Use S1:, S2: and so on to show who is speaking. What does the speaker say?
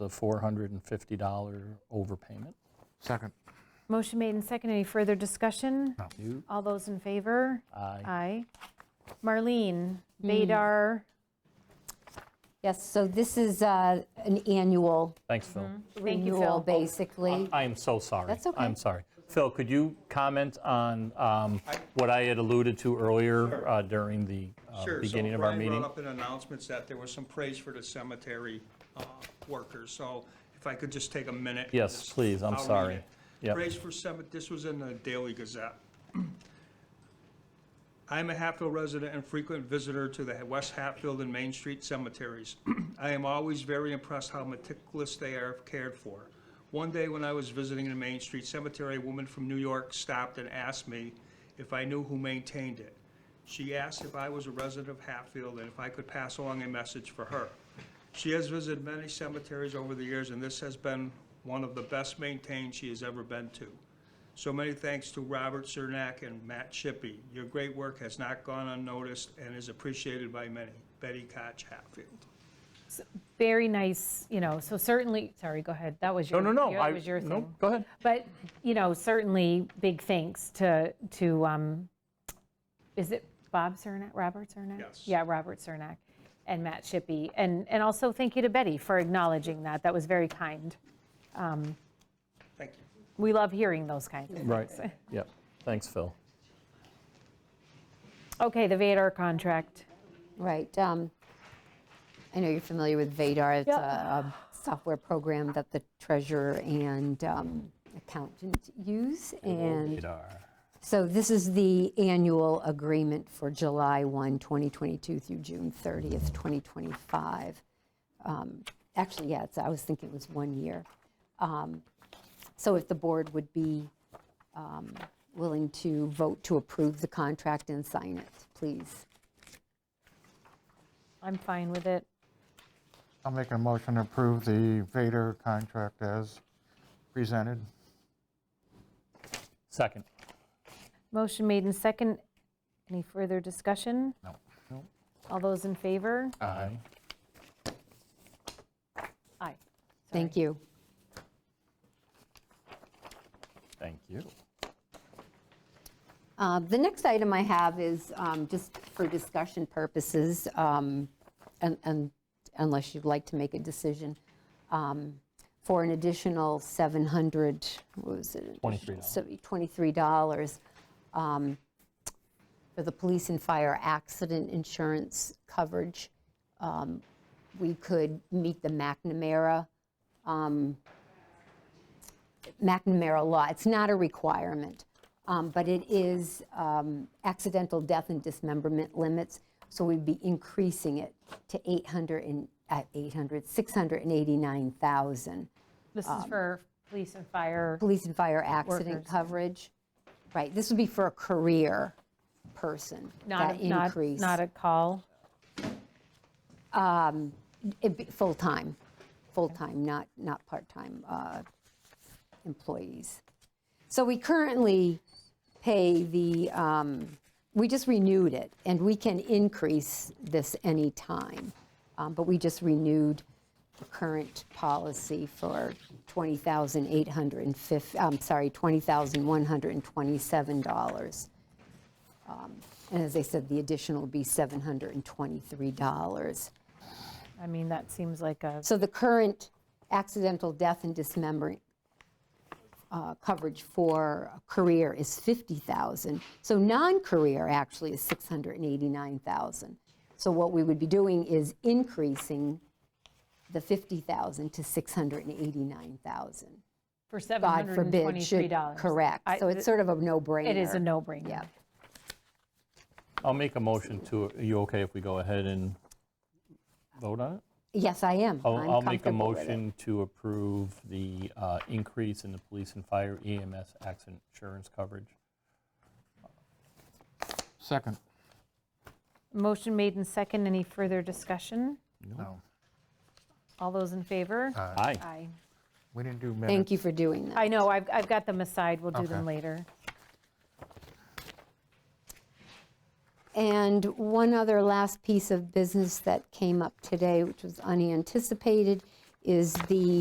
S1: the $450 overpayment.
S2: Second.
S3: Motion made and second. Any further discussion?
S1: You,
S3: All those in favor?
S1: Aye.
S3: Aye. Marlene, Vadar,
S4: Yes, so this is uh, an annual
S1: Thanks, Phil.
S3: Thank you,
S4: renewal,
S3: Phil.
S4: basically.
S1: I am so sorry.
S4: That's okay.
S1: I'm sorry. Phil, could you comment on um, what I had alluded to earlier uh, during the uh,
S5: Sure, so
S1: beginning of our
S5: Brian
S1: meeting?
S5: brought up in announcements that there was some praise for the cemetery uh, workers, so if I could just take a minute. and
S1: Yes,
S5: just-
S1: please, I'm
S5: I'll read
S1: sorry.
S5: it.
S1: Yep.
S5: Praise for cemetery, this was in the Daily Gazette. I am a Hatfield resident and frequent visitor to the West Hatfield and Main Street cemeteries. I am always very impressed how meticulous they are cared for. One day when I was visiting the Main Street Cemetery, a woman from New York stopped and asked me if I knew who maintained it. She asked if I was a resident of Hatfield and if I could pass along a message for her. She has visited many cemeteries over the years, and this has been one of the best maintained she has ever been to. So many thanks to Robert Cernak and Matt Shippey. Your great work has not gone unnoticed and is appreciated by many. Betty Koch Hatfield.
S3: very nice, you know, so certainly, sorry, go ahead. That was
S1: No,
S3: your,
S1: no, no. I-
S3: that was your
S1: no,
S3: thing.
S1: Go ahead.
S3: But, you know, certainly, big thanks to, to, um, is it Bob Cernak, Robert Cernak?
S5: Yes.
S3: Yeah, Robert Cernak and Matt Shippey. And, and also thank you to Betty for acknowledging that. That was very kind.
S5: Thank you.
S3: We love hearing those kinds of things.
S1: Right. Yep. Thanks, Phil.
S3: Okay, the Vadar contract.
S4: Right. um, I know you're familiar with Vadar. It's a
S3: Yep.
S4: a software program that the treasurer and um, accountant use. And
S1: Vadar.
S4: so this is the annual agreement for July 1, 2022 through June 30th, 2025. Um, Actually, yeah, it's- I was thinking it was one year. Um, So if the board would be um, willing to vote to approve the contract and sign it, please.
S3: I'm fine with it.
S2: I'll make a motion to approve the Vader contract as presented.
S1: Second.
S3: Motion made in second. Any further discussion?
S1: No.
S3: All those in favor?
S1: Aye.
S3: Aye.
S4: Thank you.
S1: Thank you.
S4: Uh, The next item I have is um, just for discussion purposes, um, and- and unless you'd like to make a decision, um, for an additional 700, what was it?
S1: $23.
S4: So, $23 um, for the police and fire accident insurance coverage. Um, We could meet the McNamara um, McNamara law. It's not a requirement, um, but it is um, accidental death and dismemberment limits, so we'd be increasing it to 800 and, uh, 800, 689,000.
S3: This is for police and fire.
S4: Um, Police and fire accident
S3: Workers.
S4: coverage, right, this would be for a career person,
S3: Not,
S4: that
S3: a- not,
S4: increase.
S3: not a call.
S4: It'd be full-time, full-time, not, not part-time uh, employees. So we currently pay the, um, we just renewed it, and we can increase this anytime. Um, But we just renewed the current policy for 20805 I'm sorry, $20,127. Um, And as I said, the additional would be $723.
S3: I mean, that seems like a,
S4: So the current accidental death and dismembering uh, coverage for a career is 50,000. So non-career actually is 689,000. So what we would be doing is increasing the 50,000 to 689,000.
S3: for
S4: God forbid, should,
S3: $723.
S4: correct.
S3: I-
S4: So it's sort of a no-brainer.
S3: It is a no-brainer.
S4: Yeah.
S1: I'll make a motion to, are you okay if we go ahead and vote on it?
S4: Yes, I am.
S1: I'll-
S4: I'm
S1: I'll make a
S4: comfortable with it.
S1: motion to approve the uh, increase in the police and fire EMS accident insurance coverage.
S2: Second.
S3: Motion made in second. Any further discussion?
S2: No.
S3: All those in favor?
S1: Aye.
S3: Aye.
S2: We didn't do minutes.
S4: Thank you for doing that.
S3: I know, I've, I've got them aside. We'll do them
S2: Okay.
S3: later.
S4: And one other last piece of business that came up today, which was unanticipated, is the